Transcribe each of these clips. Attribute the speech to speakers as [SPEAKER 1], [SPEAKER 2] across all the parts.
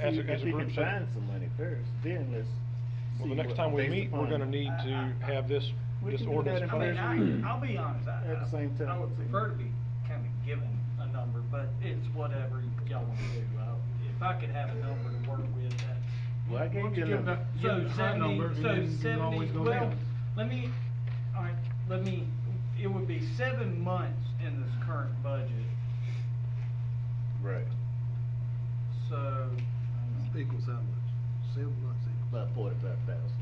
[SPEAKER 1] as a-
[SPEAKER 2] you-
[SPEAKER 1] as a group
[SPEAKER 2] If you
[SPEAKER 1] set.
[SPEAKER 2] can find some money first, then let's.
[SPEAKER 1] Well,
[SPEAKER 2] see
[SPEAKER 1] the next
[SPEAKER 2] what-
[SPEAKER 1] time we
[SPEAKER 2] based
[SPEAKER 1] meet, we're
[SPEAKER 2] upon-
[SPEAKER 1] gonna need to have this,
[SPEAKER 2] We
[SPEAKER 1] this
[SPEAKER 2] can do that
[SPEAKER 1] ordinance.
[SPEAKER 2] if
[SPEAKER 3] I
[SPEAKER 1] put
[SPEAKER 2] we-
[SPEAKER 1] in.
[SPEAKER 3] mean, I, I'll be honest, I,
[SPEAKER 2] At the same
[SPEAKER 3] I- I
[SPEAKER 2] time.
[SPEAKER 3] would prefer to be kind of given a number, but it's whatever y'all want to do. I- If I could have a number to work with, that.
[SPEAKER 2] Well, I gave you a
[SPEAKER 4] give
[SPEAKER 2] number.
[SPEAKER 4] that- give
[SPEAKER 3] So
[SPEAKER 4] the high
[SPEAKER 3] seventy,
[SPEAKER 4] number, and
[SPEAKER 3] so
[SPEAKER 4] then you
[SPEAKER 3] seventy,
[SPEAKER 4] always go
[SPEAKER 3] well,
[SPEAKER 4] down.
[SPEAKER 3] let me, alright, let me, it would be seven months in this current budget,
[SPEAKER 2] Right,
[SPEAKER 3] so. um, hang on.
[SPEAKER 4] Equals how much? Seven months equals.
[SPEAKER 2] about forty-five thousand.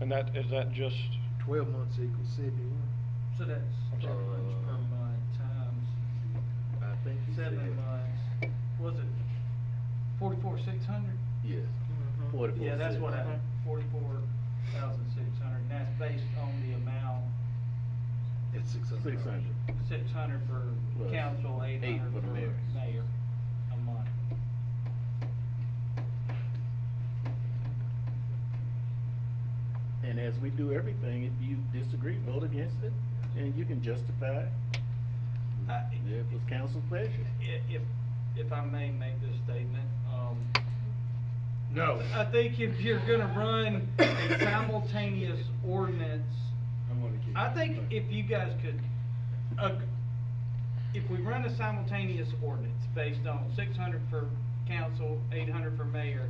[SPEAKER 1] And that, is that just,
[SPEAKER 4] Twelve months equals seventy-one.
[SPEAKER 3] So that's
[SPEAKER 1] I'm
[SPEAKER 3] two
[SPEAKER 1] sorry.
[SPEAKER 3] months per month times
[SPEAKER 2] I think you said.
[SPEAKER 3] seven months, was it forty-four, six hundred?
[SPEAKER 2] Yes,
[SPEAKER 4] Mhm.
[SPEAKER 2] forty-four.
[SPEAKER 3] Yeah, that's
[SPEAKER 2] cents.
[SPEAKER 3] what I, forty-four thousand six hundred, and that's based on the amount,
[SPEAKER 4] It's six hundred.
[SPEAKER 2] Six hundred.
[SPEAKER 3] six hundred for
[SPEAKER 2] Plus
[SPEAKER 3] council, eight
[SPEAKER 2] eight
[SPEAKER 3] hundred
[SPEAKER 2] for
[SPEAKER 3] for
[SPEAKER 2] the mayor.
[SPEAKER 3] mayor a month.
[SPEAKER 2] And as we do everything, if you disagree, vote against it, and you can justify it.
[SPEAKER 3] I-
[SPEAKER 2] If it's council pleasure.
[SPEAKER 3] I- If, if I may make this statement, um.
[SPEAKER 4] No.
[SPEAKER 3] I think if you're gonna run a simultaneous ordinance, I think if you guys could, uh, if we run a simultaneous ordinance based on six hundred for council, eight hundred for mayor,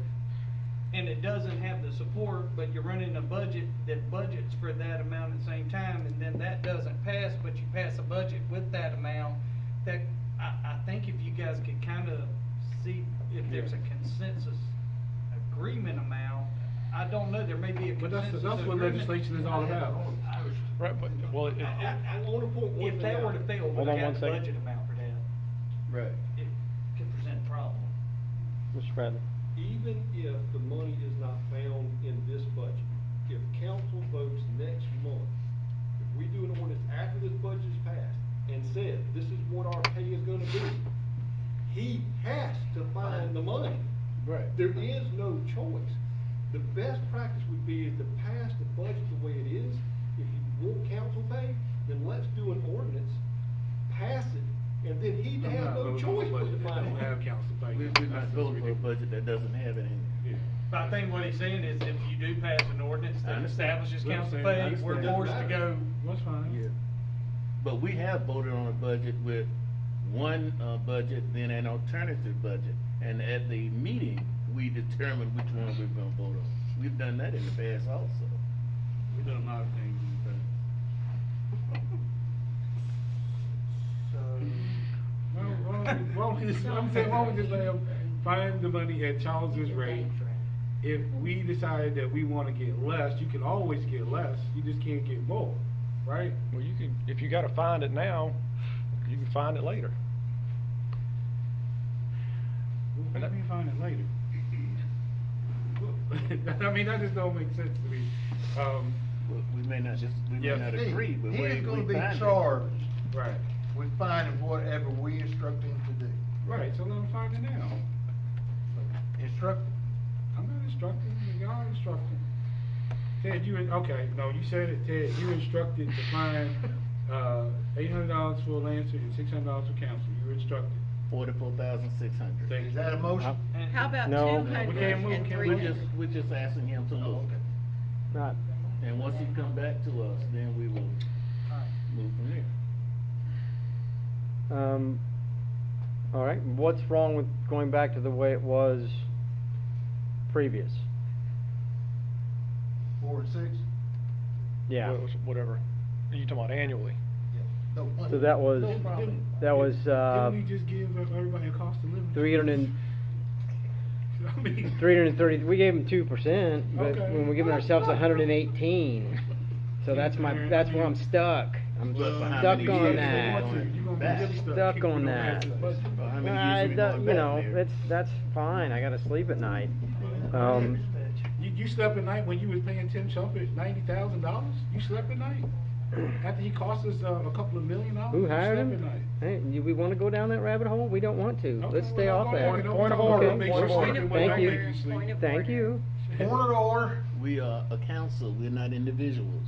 [SPEAKER 3] and it doesn't have the support, but you're running a budget that budgets for that amount at the same time, and then that doesn't pass, but you pass a budget with that amount, that, I, I think if you guys could kinda see if there's a consensus agreement amount, I don't know, there may be a
[SPEAKER 4] But that's-
[SPEAKER 3] consensus
[SPEAKER 4] that's what
[SPEAKER 3] agreement.
[SPEAKER 4] legislation is all about.
[SPEAKER 3] I-
[SPEAKER 1] right, but, well, it,
[SPEAKER 3] I, I wanna point one If that were to fail,
[SPEAKER 1] Hold
[SPEAKER 3] we
[SPEAKER 1] on
[SPEAKER 3] got
[SPEAKER 1] one
[SPEAKER 3] the
[SPEAKER 1] second.
[SPEAKER 3] budget amount for that,
[SPEAKER 2] Right.
[SPEAKER 3] it could present a problem.
[SPEAKER 1] Mr. Bradley.
[SPEAKER 5] even if the money is not found in this budget, if council votes next month, if we do an ordinance after this budget is passed and said, this is what our pay is gonna be, he has to find the money.
[SPEAKER 2] Right.
[SPEAKER 5] There is no choice. The best practice would be is to pass the budget the way it is. If you want council pay, then let's do an ordinance, pass it, and then he'd have no choice but to find
[SPEAKER 4] Don't
[SPEAKER 5] it.
[SPEAKER 4] have council
[SPEAKER 2] We,
[SPEAKER 4] pay.
[SPEAKER 2] we're not voting for a budget that doesn't have it in it.
[SPEAKER 3] But I think what he's saying is if you do pass an ordinance
[SPEAKER 2] I
[SPEAKER 3] that
[SPEAKER 2] understand.
[SPEAKER 3] establishes
[SPEAKER 4] I
[SPEAKER 3] council pay,
[SPEAKER 4] understand.
[SPEAKER 3] we're
[SPEAKER 2] I
[SPEAKER 3] forced to
[SPEAKER 5] understand.
[SPEAKER 3] go.
[SPEAKER 4] That's fine.
[SPEAKER 2] Yeah. But we have voted on a budget with one, uh, budget, then an alternative budget, and at the meeting, we determined which one we we're gonna vote on. We've done that in the past also.
[SPEAKER 4] We've done a lot of things in the Well, why don't- why don't we just, I'm saying, why don't we just let them find the money at Charles's rate? If we decide that we wanna get less, you can always get less, you just can't get more, right?
[SPEAKER 1] Well, you could, if you gotta find it now, you can find it later.
[SPEAKER 4] Well, Let me find it later. I mean, that just don't make sense to me. Um,
[SPEAKER 2] We- We may not just, we may
[SPEAKER 4] Yeah.
[SPEAKER 2] not agree, but we, we
[SPEAKER 6] He's gonna be
[SPEAKER 2] find it.
[SPEAKER 6] charged
[SPEAKER 4] right,
[SPEAKER 6] with finding whatever we instruct him to do.
[SPEAKER 4] right, so let them find it now.
[SPEAKER 6] Instruct,
[SPEAKER 4] I'm not instructing, y'all instructing. Ted, you, in- okay, no, you said it, Ted, you instructed to find, uh, eight hundred dollars for Lancer and six hundred dollars for council, you were instructed.
[SPEAKER 2] Forty-four thousand, six hundred.
[SPEAKER 4] Thank
[SPEAKER 6] is that a motion?
[SPEAKER 3] and-
[SPEAKER 7] How about
[SPEAKER 1] No.
[SPEAKER 7] two
[SPEAKER 4] We
[SPEAKER 7] hundred
[SPEAKER 4] can't move,
[SPEAKER 7] and
[SPEAKER 4] can't
[SPEAKER 7] three
[SPEAKER 2] We're
[SPEAKER 4] move.
[SPEAKER 2] just,
[SPEAKER 7] hundred?
[SPEAKER 2] we're just asking him to
[SPEAKER 6] Oh,
[SPEAKER 2] move.
[SPEAKER 6] okay.
[SPEAKER 1] Right.
[SPEAKER 2] And once he come back to us, then we will
[SPEAKER 3] Alright.
[SPEAKER 2] move from there.
[SPEAKER 8] Um, all right, what's wrong with going back to the way it was previous?
[SPEAKER 6] Four and six?
[SPEAKER 8] Yeah,
[SPEAKER 1] Wha- Whatever. You talking about annually?
[SPEAKER 6] No, one.
[SPEAKER 8] so that was,
[SPEAKER 2] No problem.
[SPEAKER 8] that was, uh,
[SPEAKER 4] Didn't we just give everybody a cost of living?
[SPEAKER 8] three hundred and,
[SPEAKER 4] I mean-
[SPEAKER 8] three hundred and thirty, we gave them two percent, but
[SPEAKER 4] Okay.
[SPEAKER 8] when we're giving ourselves a hundred and eighteen. So that's my, that's where I'm stuck, I'm
[SPEAKER 2] Well, for how
[SPEAKER 8] stuck
[SPEAKER 2] many
[SPEAKER 8] on
[SPEAKER 2] years they
[SPEAKER 8] that.
[SPEAKER 2] want it?
[SPEAKER 4] You're gonna be
[SPEAKER 2] Back.
[SPEAKER 4] really
[SPEAKER 8] Stuck
[SPEAKER 4] if we don't
[SPEAKER 8] on
[SPEAKER 4] have
[SPEAKER 8] that.
[SPEAKER 4] this budget.
[SPEAKER 2] Well, I mean,
[SPEAKER 8] I,
[SPEAKER 2] usually
[SPEAKER 8] don't-
[SPEAKER 2] going
[SPEAKER 8] you
[SPEAKER 2] back
[SPEAKER 8] know,
[SPEAKER 2] there.
[SPEAKER 8] that's, that's fine, I gotta sleep at night, um.
[SPEAKER 4] You, you slept at night when you was paying Tim Shumpert ninety thousand dollars? You slept at night? After he cost us, uh, a couple of million dollars?
[SPEAKER 8] Who
[SPEAKER 4] you
[SPEAKER 8] hired
[SPEAKER 4] slept
[SPEAKER 8] him?
[SPEAKER 4] at night.
[SPEAKER 8] Hey, you, we wanna go down that rabbit hole? We don't want to.
[SPEAKER 4] Okay,
[SPEAKER 8] Let's
[SPEAKER 4] we're
[SPEAKER 8] stay
[SPEAKER 4] not
[SPEAKER 8] off
[SPEAKER 4] going
[SPEAKER 8] that.
[SPEAKER 4] there. Don't Point of talk order. about Make sure
[SPEAKER 8] Point
[SPEAKER 4] sleeping
[SPEAKER 8] of
[SPEAKER 4] when
[SPEAKER 8] Thank
[SPEAKER 4] I make you
[SPEAKER 8] you.
[SPEAKER 4] sleep.
[SPEAKER 7] Point of
[SPEAKER 8] Thank
[SPEAKER 7] order.
[SPEAKER 8] you.
[SPEAKER 6] Point of order.
[SPEAKER 2] We are a council, we're not individuals.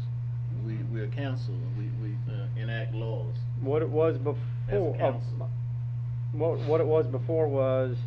[SPEAKER 2] We, we're a council, and we, we uh, enact laws
[SPEAKER 8] What it was
[SPEAKER 2] as a
[SPEAKER 8] before, uh,
[SPEAKER 2] council.
[SPEAKER 8] what, what it was before was